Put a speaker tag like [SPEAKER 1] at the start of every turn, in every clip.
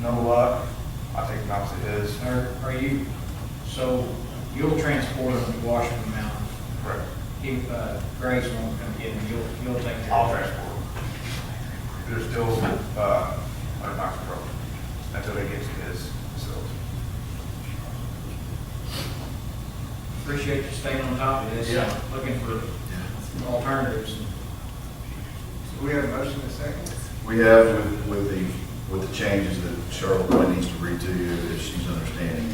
[SPEAKER 1] no luck. I take them out to his.
[SPEAKER 2] Are, are you, so you'll transport them to Washington Mountain.
[SPEAKER 1] Correct.
[SPEAKER 2] If uh, Graves won't come get them, you'll, you'll take care
[SPEAKER 1] I'll
[SPEAKER 2] of
[SPEAKER 1] transport them. They're still, uh, under my control until they get to his facility.
[SPEAKER 2] Appreciate you staying on top of this.
[SPEAKER 3] Yeah.
[SPEAKER 2] Looking for alternatives.
[SPEAKER 4] We have a motion and a second.
[SPEAKER 3] We have with, with the, with the changes that Cheryl probably needs to read to you, if she's understanding.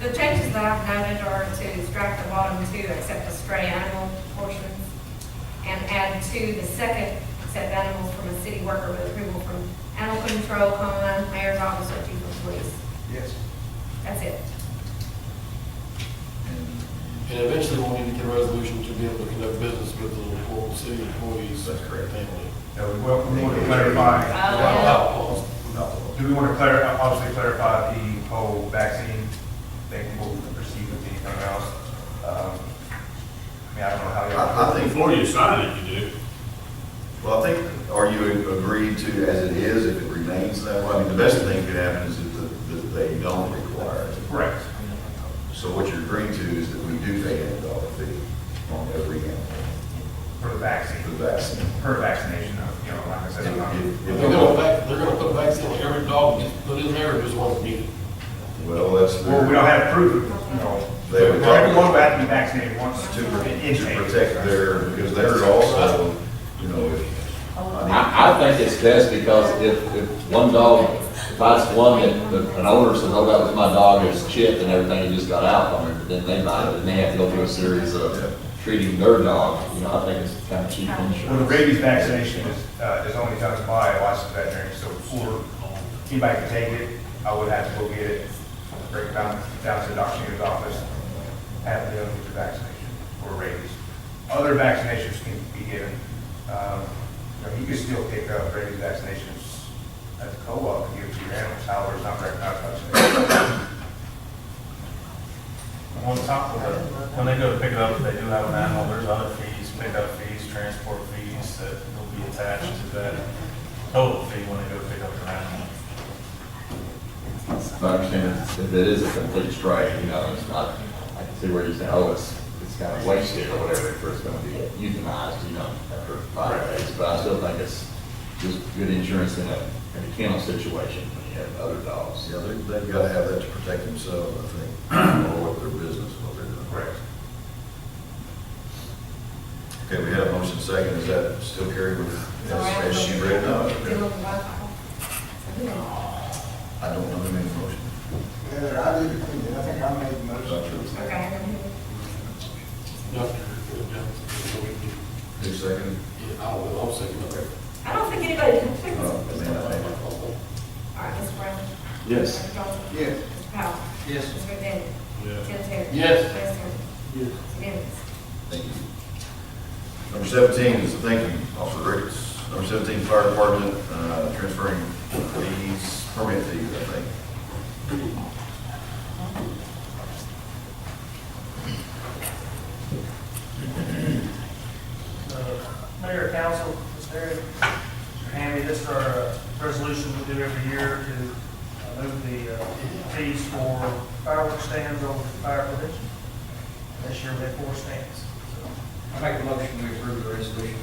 [SPEAKER 5] The changes that I've noted are to strike the bottom two, except the stray animal portions, and add to the second, except animals from a city worker with approval from animal control, comma, mayor's office, or chief of police.
[SPEAKER 4] Yes.
[SPEAKER 5] That's it.
[SPEAKER 3] And
[SPEAKER 6] And eventually we'll need to get a resolution to be able to conduct business with the employee, city employees.
[SPEAKER 3] That's correct.
[SPEAKER 6] Family.
[SPEAKER 1] Now, we want, we want to clarify.
[SPEAKER 5] yeah.
[SPEAKER 6] Without clause.
[SPEAKER 1] Do we want to clarify, obviously clarify the whole vaccine thing, what we proceed with anything else? Um, I mean, I don't know how
[SPEAKER 3] I, I
[SPEAKER 1] y'all.
[SPEAKER 3] think.
[SPEAKER 7] Before you sign it, you do.
[SPEAKER 3] Well, I think, are you agreed to as it is, if it remains that way? I mean, the best thing that could happen is that, the- that they don't require it.
[SPEAKER 1] Correct.
[SPEAKER 3] So what you're agreeing to is that we do pay a dollar fee on every animal
[SPEAKER 1] For the
[SPEAKER 3] for
[SPEAKER 1] vaccine,
[SPEAKER 3] the vaccine.
[SPEAKER 1] per vaccination, uh, you know, like I said. I'm not-
[SPEAKER 3] If-
[SPEAKER 6] They're
[SPEAKER 3] if-
[SPEAKER 6] gonna, vac- they're gonna put a vaccine on every dog, that gets put in there, just one needed.
[SPEAKER 3] Well, that's.
[SPEAKER 1] Well, we don't have proof, you know.
[SPEAKER 3] They would-
[SPEAKER 1] Everyone would have to be vaccinated once
[SPEAKER 3] To,
[SPEAKER 1] in-
[SPEAKER 3] to
[SPEAKER 1] intake.
[SPEAKER 3] protect their, because they're also, you know, if, I
[SPEAKER 8] I, I think it's best because if, if one dog, if I just one that, that an owner says, oh, that was my dog, it was chipped and everything, it just got out on it, then they might, and they have to go through a series of treating their dog, you know, I think it's kind of cheap
[SPEAKER 1] Well, the
[SPEAKER 8] insurance.
[SPEAKER 1] rabies vaccination is, uh, is only done by a licensed veterinarian, so before anybody can take it, I would have to go get it, break it down, down to the doctor's office, have the other get the vaccination for rabies. Other vaccinations can be given, um, you know, you can still pick up rabies vaccinations at the co-op, and give it to your animals, however, it's not recognized by the state.
[SPEAKER 9] On top of it, when they go to pick it up, if they do have an animal, there's other fees, pickup fees, transport fees that will be attached to that total fee when they go pick up their animal.
[SPEAKER 8] If I understand, it's- if it is a complete strike, you know, it's not, I can see where you're saying, oh, it's, it's kind of wasted or whatever, if it's gonna be euthanized, you know, after five days, but I still think it's just good insurance in a, in a kennel situation when you have other dogs.
[SPEAKER 3] yeah, they- they've got to have that to protect themselves, I think, or what their business, what they're doing.
[SPEAKER 1] Correct.
[SPEAKER 3] Okay, we have a motion second, is that still carried with, as as she read? Oh, No,
[SPEAKER 5] Deal with alcohol.
[SPEAKER 3] I don't know the main motion.
[SPEAKER 4] Heather, I did, I think I made the motion.
[SPEAKER 5] Okay.
[SPEAKER 6] Yeah. So we can-
[SPEAKER 3] Who seconded?
[SPEAKER 6] yeah, I will, I'll second that.
[SPEAKER 5] I don't think anybody can fix this.
[SPEAKER 3] Oh, Amanda,
[SPEAKER 8] uh,
[SPEAKER 3] I think.
[SPEAKER 5] All right, Mr. Brown.
[SPEAKER 8] Yes.
[SPEAKER 5] Mr. Johnson.
[SPEAKER 4] Yes.
[SPEAKER 5] Mr. Powell.
[SPEAKER 2] Yes.
[SPEAKER 5] Mr. McDaniel.
[SPEAKER 6] Yeah.
[SPEAKER 5] Tim Terry.
[SPEAKER 6] Yes.
[SPEAKER 5] Western. Yes. Dennis.
[SPEAKER 3] Thank you. Number seventeen is, thank you, Officer Ricketts. Number seventeen, fire department, uh, transferring fees, permit fees, I think.
[SPEAKER 9] Uh, Mayor, council, Mr. Harry, Andy, this is our uh, resolution we do every year to uh, move the uh, fees for fireworks stands over the fire prevention. This year we had four stands.
[SPEAKER 2] I make a motion to approve the resolution.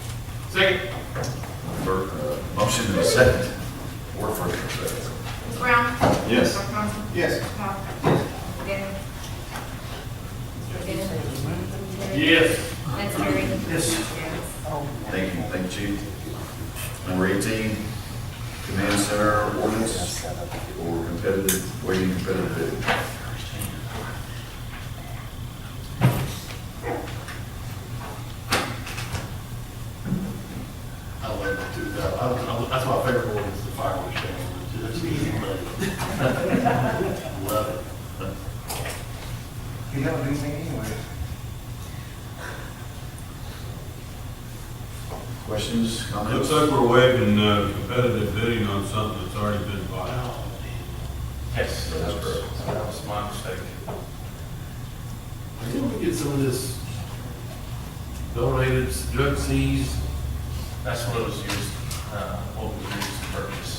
[SPEAKER 6] Second.
[SPEAKER 3] For, uh, motion in a second, or first and second.
[SPEAKER 5] Mr. Brown.
[SPEAKER 8] Yes.
[SPEAKER 5] Mr. Johnson.
[SPEAKER 4] Yes.
[SPEAKER 5] Mr. Powell. Mr. Dennis. Mr. Dennis.
[SPEAKER 6] Yes.
[SPEAKER 5] Mr. Terry.
[SPEAKER 9] Yes.
[SPEAKER 5] Yes.
[SPEAKER 3] Thank you, thank you, Chief. Number eighteen, command center ordinance for competitive, waiting competitive bidding.
[SPEAKER 6] I love it too, though. I- I- that's my favorite one, is the fireworks show. It's easy money. Love it.
[SPEAKER 4] You don't do anything anyway.
[SPEAKER 3] Questions,
[SPEAKER 7] Looks
[SPEAKER 3] comments?
[SPEAKER 7] like we're waiving uh, competitive bidding on something that's already been bought out.
[SPEAKER 9] Yes.
[SPEAKER 3] That's correct.
[SPEAKER 9] That was my mistake.
[SPEAKER 6] I think we get some of this donated drug seized
[SPEAKER 9] That's what it was used, uh, what was used to purchase.